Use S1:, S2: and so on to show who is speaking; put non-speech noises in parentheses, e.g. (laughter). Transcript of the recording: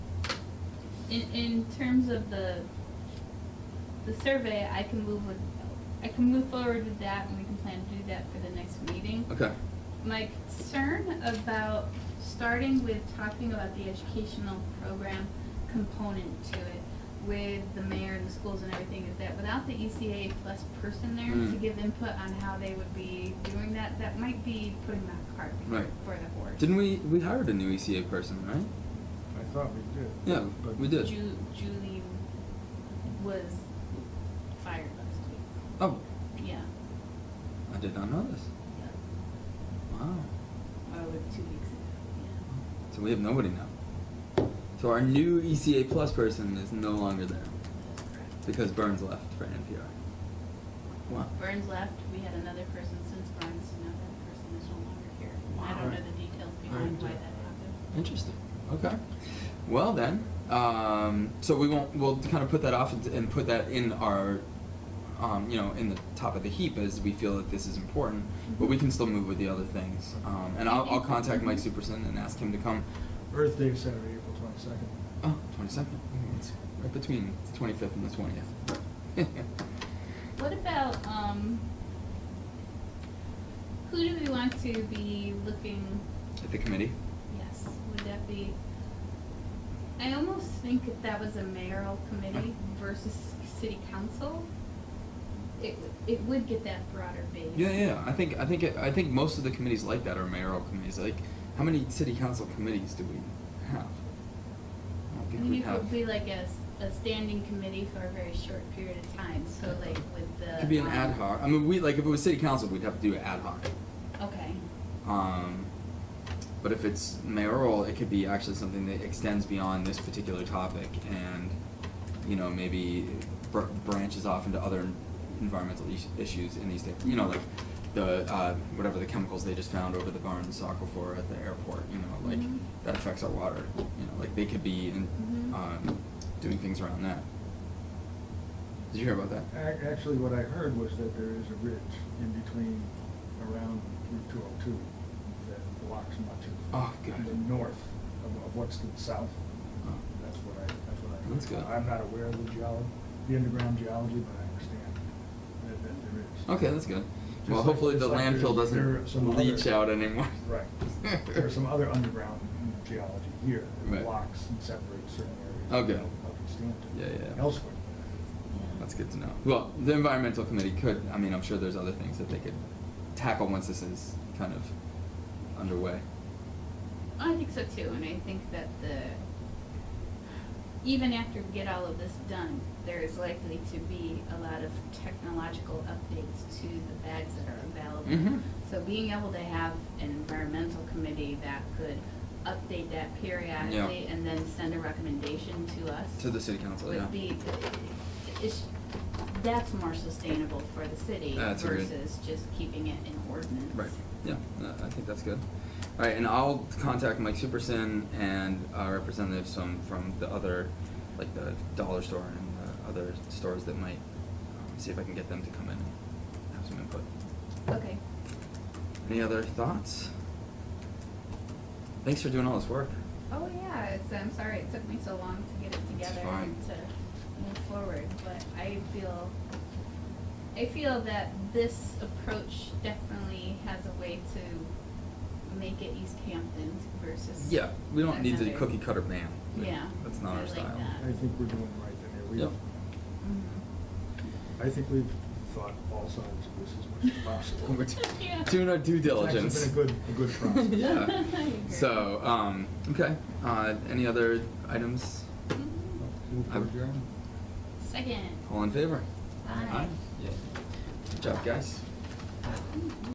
S1: in, in terms of the, the survey, I can move with, I can move forward with that and we can plan to do that for the next meeting.
S2: Okay.
S1: My concern about starting with talking about the educational program component to it with the mayor and the schools and everything is that without the ECA plus person there to
S2: Mm.
S1: give input on how they would be doing that, that might be putting that cart
S2: Right.
S1: before the horse.
S2: Didn't we we hired a new ECA person, right?
S3: I thought we did.
S2: Yeah,
S3: But
S2: we did.
S1: Ju- Julie was fired last
S2: Oh,
S1: week. Yeah.
S2: I did not know this.
S1: yeah.
S2: Wow.
S1: Or was it two weeks ago.
S2: So we have nobody now. So our new ECA plus person is no longer there
S1: Yeah. That's correct.
S2: because Burns left for NPR. Wow.
S1: Burns left. We had another person since Burns. and Now that person is no longer here. I don't know the details behind why that happened.
S2: Interesting. Okay. Well then, um, so we won't. We'll kind of put that off and, and put that in our, um, you know, in the top of the heap as we feel that this is important. But we can still move with the other things. Um, and I'll, I'll contact Mike Superson and ask him to come.
S3: Earth Day is Saturday, April twenty-second.
S2: Oh, 22nd. It's right between the 25th and the 20th.
S1: What about um? Who do we want to be looking?
S2: (laughs) At the committee.
S1: Yes, would that be? I almost think if that was a mayoral committee versus city council, it it would get that broader base.
S2: Yeah, yeah. I think I think it, I think most of the committees like that are mayoral committees. Like, how many city council committees do we have? I don't
S1: I
S2: think we
S1: mean, it
S2: have.
S1: would be like a, s- a standing committee for a very short period of time, so like with the.
S2: Could be an
S1: um,
S2: ad hoc. I mean, we like if it was city council, we'd have to do it ad hoc.
S1: Okay,
S2: Um, but if it's mayoral, it could be actually something that extends beyond this particular topic, and you know maybe br- branches off into other environmental is- issues in these different. You know, like the uh, whatever the chemicals they just found over the Barnes aquifer at the airport. You know, like
S1: Mhm.
S2: that affects our water. You know, like they could be in,
S1: Mhm.
S2: um, doing things around that. Did you hear about that?
S3: Ac- Actually, what I heard was that there is a ridge in between around Route two oh two that blocks much of.
S2: Oh, good.
S3: The north of, of what's to the south. That's what I, that's what I. heard.
S2: That's good.
S3: I'm not aware of the geology, the underground geology, but I understand that, that there is.
S2: Okay, that's good.
S3: Just
S2: Well,
S3: like-
S2: hopefully the
S3: just like
S2: landfill
S3: there's- there are some
S2: doesn't leach
S3: other-
S2: out anymore.
S3: (laughs)
S2: (laughs)
S3: Right. There's some other underground geology here
S2: Right.
S3: that blocks and separates certain areas.
S2: Okay.
S3: of- Of East Hampton.
S2: Yeah, yeah.
S3: Elsewhere.
S1: yeah.
S2: That's good to know. Well, the environmental committee could, I mean, I'm sure there's other things that they could tackle once this is kind of underway.
S1: I think so too, and I think that the, even after we get all of this done, there is likely to be a lot of technological updates to the bags that are available.
S2: Mhm.
S1: So being able to have an environmental committee that could update that periodically and then send a recommendation to us
S2: To the city council, yeah.
S1: would be, it's, that's more sustainable for the city
S2: That's a good-
S1: versus just keeping it in ordinance.
S2: Right, yeah, no, I think that's good. All right, and I'll contact Mike Superson and uh, representatives from, from the other, like the dollar store and the other stores that might, um, see if I can get them to come in and have some input.
S1: Okay.
S2: Any other thoughts? Thanks for doing all this work.
S1: Oh yeah, it's, I'm sorry it took me so long to get it together
S2: fine.
S1: and to move forward, but I feel, I feel that this approach definitely has a way to make it East Hampton versus.
S2: Yeah, we don't need the
S1: another-
S2: cookie cutter man. Like,
S1: Yeah,
S2: That's not
S1: I
S2: our
S1: like
S2: style.
S1: that.
S3: I think we're doing right in there.
S2: Yep.
S3: We've,
S1: Mhm.
S3: I think we've thought all sides of this as much
S2: (laughs)
S3: as (laughs) possible.
S2: We're
S3: It's
S2: t-
S1: (laughs) Yeah.
S2: (laughs) doing our due diligence.
S3: actually been a good, a good
S2: (laughs)
S3: process.
S1: (laughs)
S2: yeah.
S1: I agree.
S2: So, um, okay. Uh, any other items?
S1: Mhm.
S3: Move to adjourn.
S1: Second.
S2: All in favor?
S1: Aye.
S2: Yeah. Good job, guys.